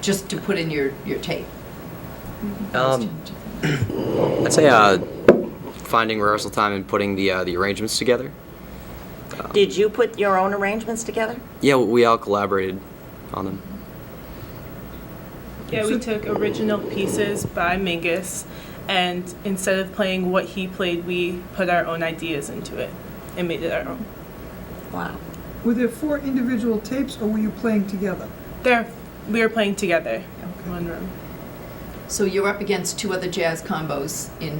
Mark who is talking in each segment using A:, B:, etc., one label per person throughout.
A: just to put in your, your tape?
B: Um, I'd say uh, finding rehearsal time and putting the uh, the arrangements together.
C: Did you put your own arrangements together?
B: Yeah, we all collaborated on them.
D: Yeah, we took original pieces by Mingus, and instead of playing what he played, we put our own ideas into it and made it our own.
C: Wow.
E: Were there four individual tapes, or were you playing together?
D: There, we were playing together in one room.
A: So you're up against two other jazz combos in,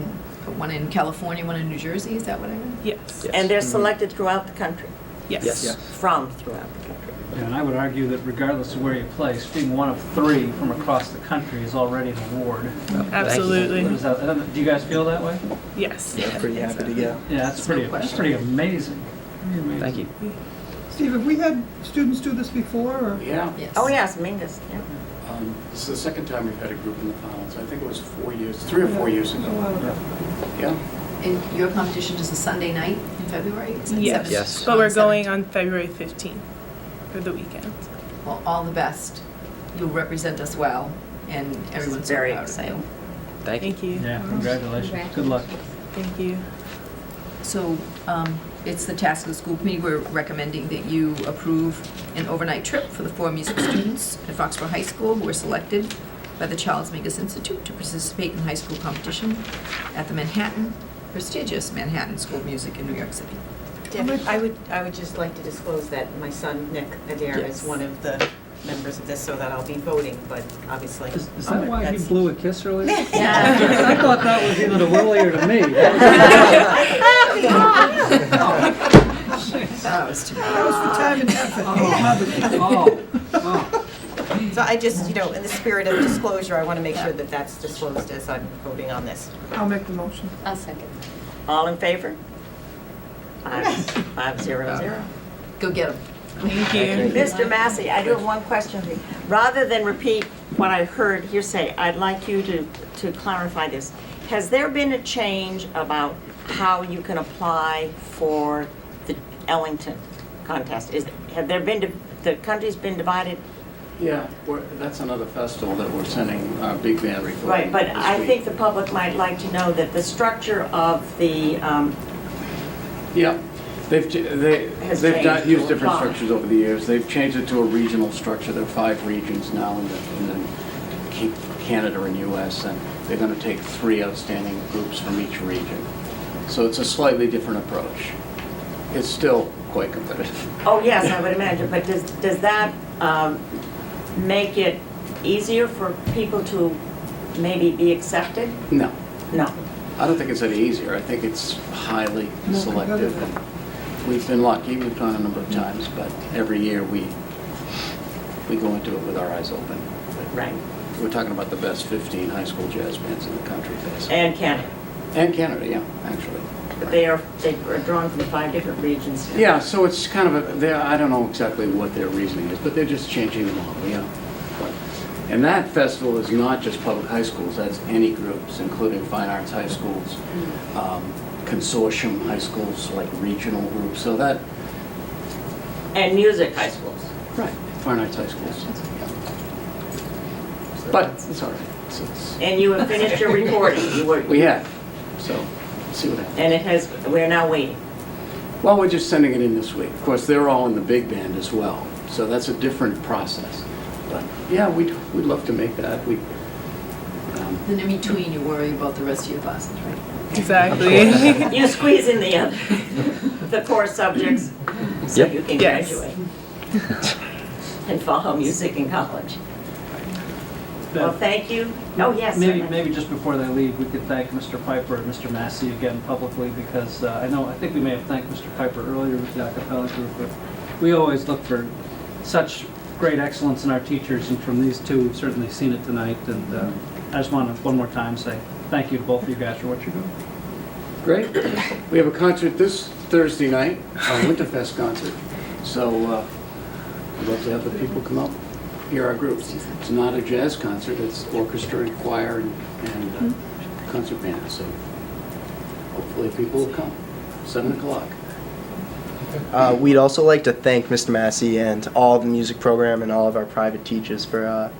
A: one in California, one in New Jersey, is that what I read?
D: Yes.
B: Yes.
C: And they're selected throughout the country,
D: Yes.
B: Yes. Yeah.
C: from throughout the country.
F: Yeah, And I would argue that regardless of where you place, being one of three from across the country is already an award.
D: Mm-hmm.
F: What
D: Absolutely.
F: is that- I don't know, Do you guys feel that way?
D: Yes.
G: Pretty happy to go.
F: Yeah, that's
A: It's no
F: pretty, that's
A: question.
F: pretty amazing. Pretty amazing.
B: Thank you.
E: Steve, have we had students do this before, or?
H: Yeah.
A: Yes.
C: Oh, yes, Mingus, yeah.
H: Um, This is the second time we've had a group in the finals. I think it was four years, three or four years
E: A while
H: ago.
E: ago.
H: Yeah.
A: And your competition is a Sunday night in February? Is it
D: Yes.
A: seven?
B: Yes.
D: But we're
A: Seven.
D: going on February 15th for the weekend.
A: Well, all the best. You'll represent us well, and everyone's so
C: very
A: proud of you.
C: exciting.
B: Thank you.
D: Thank you.
F: Yeah, congratulations. Good luck.
D: Thank you.
A: So um, it's the task of the school committee, we're recommending that you approve an overnight trip for the four musical students at Foxborough High School who were selected by the Charles Mingus Institute to participate in high school competition at the Manhattan, prestigious Manhattan School of Music in New York City.
I: Debbie, I would, I would just like to disclose that my son, Nick Adair,
A: Yes.
I: is one of the members of this, so that I'll be voting, but obviously. uh,
F: Is is that why he
I: that's-
F: blew a kiss earlier? I thought that was either to Willie or to me. That
A: That was too
E: That was for time and effort.
I: So I just, you know, in the spirit of disclosure, I want to make sure that that's disclosed as I'm voting on this.
E: I'll make the motion.
J: I'll second.
C: All in favor? Five, five zero zero.
A: Go get them.
D: Thank you.
C: Mr. Massey, I do have one question for you. Rather than repeat what I heard hearsay, I'd like you to, to clarify this. Has there been a change about how you can apply for the Ellington contest? Is, have there been, di- the country's been divided?
H: Yeah, we're- that's another festival that we're sending our big band recording.
C: Right, but
H: this
C: I
H: week.
C: think the public might like to know that the structure of the, um,
H: Yeah, they've, ch- they,
C: Has
H: they've
C: changed
H: done, used
C: to
H: different
C: apply.
H: structures over the years. They've changed it to a regional structure. There are five regions now, and then- and then keep Canada and US, and they're going to take three outstanding groups from each region. So it's a slightly different approach. It's still quite competitive.
C: oh yes, I would imagine, but does, does that um, make it easier for people to maybe be accepted?
H: No,
C: No.
H: I don't think it's any easier. I think it's highly
E: More
H: selective.
E: competitive.
H: We've been lucky, we've gone a number of times, but every year we, we go into it with our eyes open.
C: Right.
H: We're talking about the best 15 high school jazz bands in the country, basically.
C: And Canada,
H: and Canada, yeah, actually.
C: but they are, they are drawn from five different regions.
H: Yeah, so it's kind of, a. they're- I don't know exactly what their reasoning is, but they're just changing the model, yeah. And that festival is not just public high schools, that's any groups, including fine arts high schools, um, consortium high schools, like regional groups, so that,
C: And music high schools.
H: right, fine arts high schools. But it's all right. It's- it's-
C: And you have finished your recording, you were,
H: We have, so, see what happens.
C: and it has, we're now waiting.
H: Well, we're just sending it in this week. Of course, they're all in the big band as well, so that's a different process. But yeah, we'd, we'd love to make that. We, um,
A: Then in between, you worry about the rest of your classes, right?
D: Exactly.
C: You squeeze in the other, the core subjects, so
B: Yep.
C: you can
D: Yes.
C: graduate. And follow music in college. Well, thank you. Oh, yes.
F: Maybe,
C: certainly.
F: maybe just before they leave, we could thank Mr. Piper and Mr. Massey again publicly, because uh, I know, I think we may have thanked Mr. Piper earlier with the acapella group, but we always look for such great excellence in our teachers, and from these two, we've certainly seen it tonight, and uh, I just want to, one more time, say thank you to both of you guys for what you're doing.
H: great. We have a concert this Thursday night, our Winterfest concert. So uh, we'd love to have the people come up, hear our groups. It's not a jazz concert, it's orchestra and choir and, and uh, concert band. So hopefully people will come. Seven o'clock.
G: Uh, we'd also like to thank Mr. Massey and all the music program and all of our private teachers for uh,